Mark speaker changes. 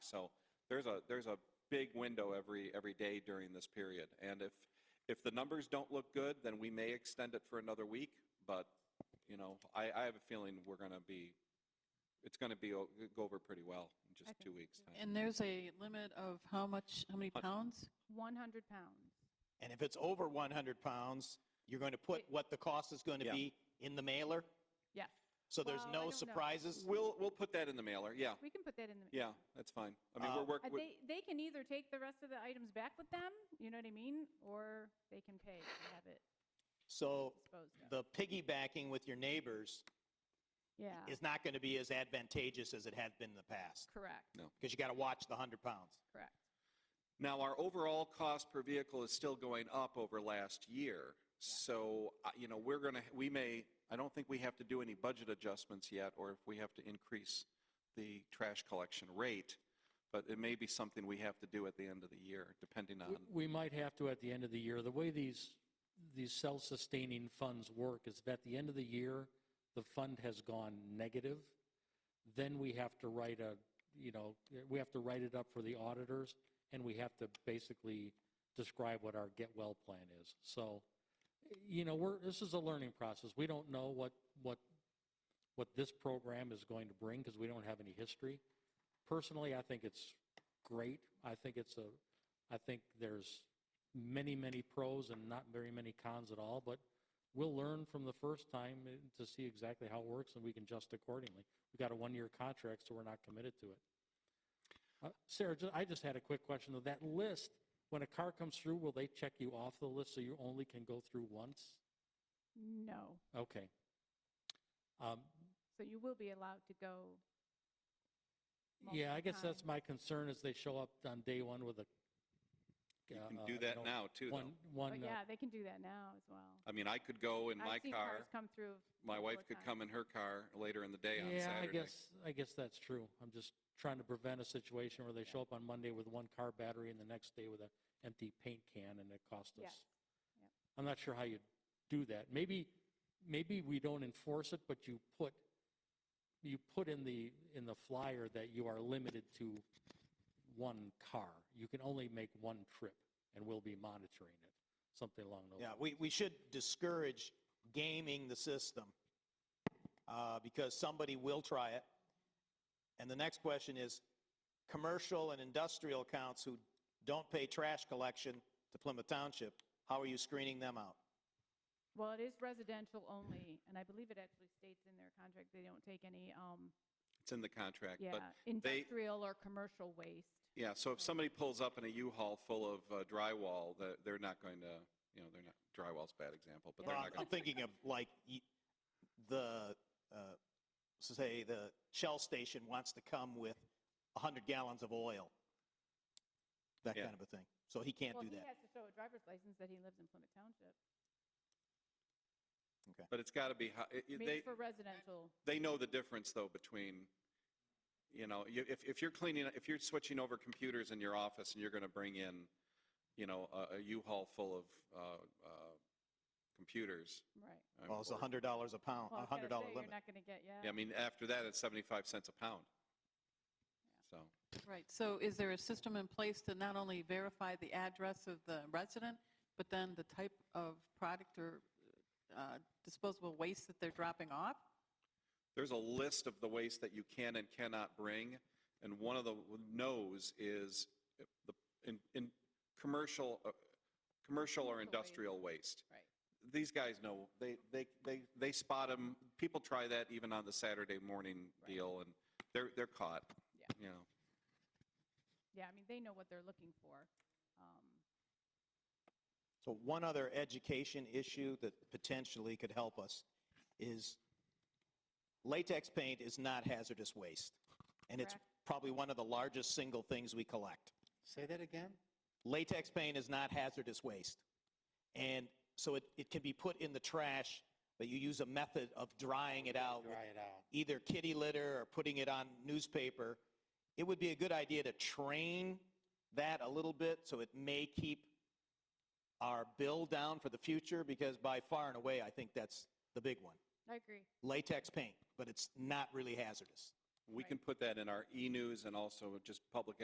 Speaker 1: So there's a, there's a big window every, every day during this period. And if, if the numbers don't look good, then we may extend it for another week. But, you know, I, I have a feeling we're going to be, it's going to be, o- go over pretty well in just
Speaker 2: Okay.
Speaker 1: two weeks' time.
Speaker 3: And there's a limit of how much, how many
Speaker 1: Hun-
Speaker 3: pounds?
Speaker 2: 100 pounds.
Speaker 4: And if it's over 100 pounds, you're going to put
Speaker 2: Wait.
Speaker 4: what the cost is going to
Speaker 1: Yeah.
Speaker 4: be in the mailer?
Speaker 2: Yes.
Speaker 4: So there's
Speaker 2: Well, I don't
Speaker 4: no
Speaker 2: know.
Speaker 4: surprises?
Speaker 1: We'll, we'll put that in the mailer, yeah.
Speaker 2: We can put that in the.
Speaker 1: Yeah, that's fine. I mean, we're
Speaker 4: Uh,
Speaker 2: Uh,
Speaker 1: working,
Speaker 2: They, they can either take the rest of the items back with them, you know what I mean? Or they can pay to have it
Speaker 4: So
Speaker 2: disposed of.
Speaker 4: the piggybacking with your neighbors
Speaker 2: Yeah,
Speaker 4: is not going to be as advantageous as it has been in the past
Speaker 2: correct,
Speaker 4: because you got to watch the 100 pounds.
Speaker 2: correct.
Speaker 1: now our overall cost per vehicle is still going up over last year. So, uh, you know, we're going to, we may, I don't think we have to do any budget adjustments yet, or if we have to increase the trash collection rate, but it may be something we have to do at the end of the year, depending on,
Speaker 5: We- We might have to at the end of the year. The way these, these self-sustaining funds work is that at the end of the year, the fund has gone negative. Then we have to write a, you know, we have to write it up for the auditors and we have to basically describe what our get well plan is. So, you know, we're, this is a learning process. We don't know what, what, what this program is going to bring because we don't have any history. Personally, I think it's great. I think it's a, I think there's many, many pros and not very many cons at all, but we'll learn from the first time eh, to see exactly how it works and we can adjust accordingly. We've got a one-year contract, so we're not committed to it. Uh, Sarah, ju- I just had a quick question of that list. When a car comes through, will they check you off the list so you only can go through once?
Speaker 2: No,
Speaker 5: Okay. Um,
Speaker 2: so you will be allowed to go.
Speaker 5: Yeah,
Speaker 2: multiple
Speaker 5: I guess that's
Speaker 2: times.
Speaker 5: my concern is they show up on day one with a.
Speaker 1: you
Speaker 5: uh,
Speaker 1: can
Speaker 5: uh,
Speaker 1: do that
Speaker 5: know,
Speaker 1: now too. though.
Speaker 5: One, one.
Speaker 2: But
Speaker 5: uh,
Speaker 2: yeah, they can do that now as well.
Speaker 1: I mean, I could go in my
Speaker 2: I've seen
Speaker 1: car,
Speaker 2: cars come through.
Speaker 1: my
Speaker 2: multiple
Speaker 1: wife could
Speaker 2: times.
Speaker 1: come in her car later in the day on Saturday.
Speaker 5: Yeah, I guess, I guess that's true. I'm just trying to prevent a situation where they show up on Monday with one car battery and the next day with an empty paint can and it costs us.
Speaker 2: Yes. Yep.
Speaker 5: I'm not sure how you do that. Maybe, maybe we don't enforce it, but you put, you put in the, in the flyer that you are limited to one car. You can only make one trip and we'll be monitoring it, something along those.
Speaker 4: Yeah, we, we should discourage gaming the system uh, because somebody will try it. And the next question is commercial and industrial accounts who don't pay trash collection to Plymouth Township, how are you screening them out?
Speaker 2: Well, it is residential only, and I believe it actually states in their contract, they don't take any, um,
Speaker 1: It's in the contract,
Speaker 2: yeah,
Speaker 1: but they-
Speaker 2: industrial or commercial waste.
Speaker 1: Yeah, so if somebody pulls up in a U-Haul full of uh, drywall, the- they're not going to, you know, they're not, drywall's a bad example, but they're
Speaker 4: Well,
Speaker 1: not going
Speaker 4: I'm, I'm
Speaker 1: to.
Speaker 4: thinking of like y- the, uh, say, the Shell station wants to come with 100 gallons of oil, that
Speaker 1: Yeah.
Speaker 4: kind of a thing. So he can't
Speaker 2: Well,
Speaker 4: do
Speaker 2: he
Speaker 4: that.
Speaker 2: has to show a driver's license that he lives in Plymouth Township.
Speaker 1: But it's got to be, hi- it- it-
Speaker 2: Made
Speaker 1: they,
Speaker 2: for residential.
Speaker 1: they know the difference, though, between, you know, you- if, if you're cleaning, if you're switching over computers in your office and you're going to bring in, you know, a- a U-Haul full of uh, uh, computers.
Speaker 2: Right.
Speaker 1: um,
Speaker 4: Well, it's
Speaker 1: or-
Speaker 4: $100 a pound,
Speaker 2: Well, I
Speaker 4: a
Speaker 2: was gonna
Speaker 4: $100 limit.
Speaker 2: say, You're not going to get,
Speaker 1: Yeah, I
Speaker 2: yeah.
Speaker 1: mean, after that, it's 75 cents a pound. So,
Speaker 3: Right, so is there a system in place to not only verify the address of the resident, but then the type of product or uh, disposable waste that they're dropping off?
Speaker 1: there's a list of the waste that you can and cannot bring, and one of the no's is the, in, in commercial, uh, commercial
Speaker 2: Commercial
Speaker 1: or
Speaker 2: waste.
Speaker 1: industrial waste.
Speaker 2: Right.
Speaker 1: These guys know, they, they, they, they spot them, people try that even on the Saturday morning deal, and they're, they're caught,
Speaker 2: Yeah.
Speaker 1: you know.
Speaker 2: Yeah, I mean, they know what they're looking for. Um,
Speaker 4: So one other education issue that potentially could help us is latex paint is not hazardous waste. And it's
Speaker 2: Correct.
Speaker 4: probably one of the largest single things we collect.
Speaker 6: Say that again?
Speaker 4: Latex paint is not hazardous waste. And so it, it can be put in the trash, but you use a method of drying it out with
Speaker 6: Dry it out.
Speaker 4: either kitty litter or putting it on newspaper, it would be a good idea to train that a little bit so it may keep our bill down for the future because by far and away, I think that's the big one.
Speaker 2: I agree.
Speaker 4: Latex paint, but it's not really hazardous.
Speaker 1: We can put that in our e-news and also just public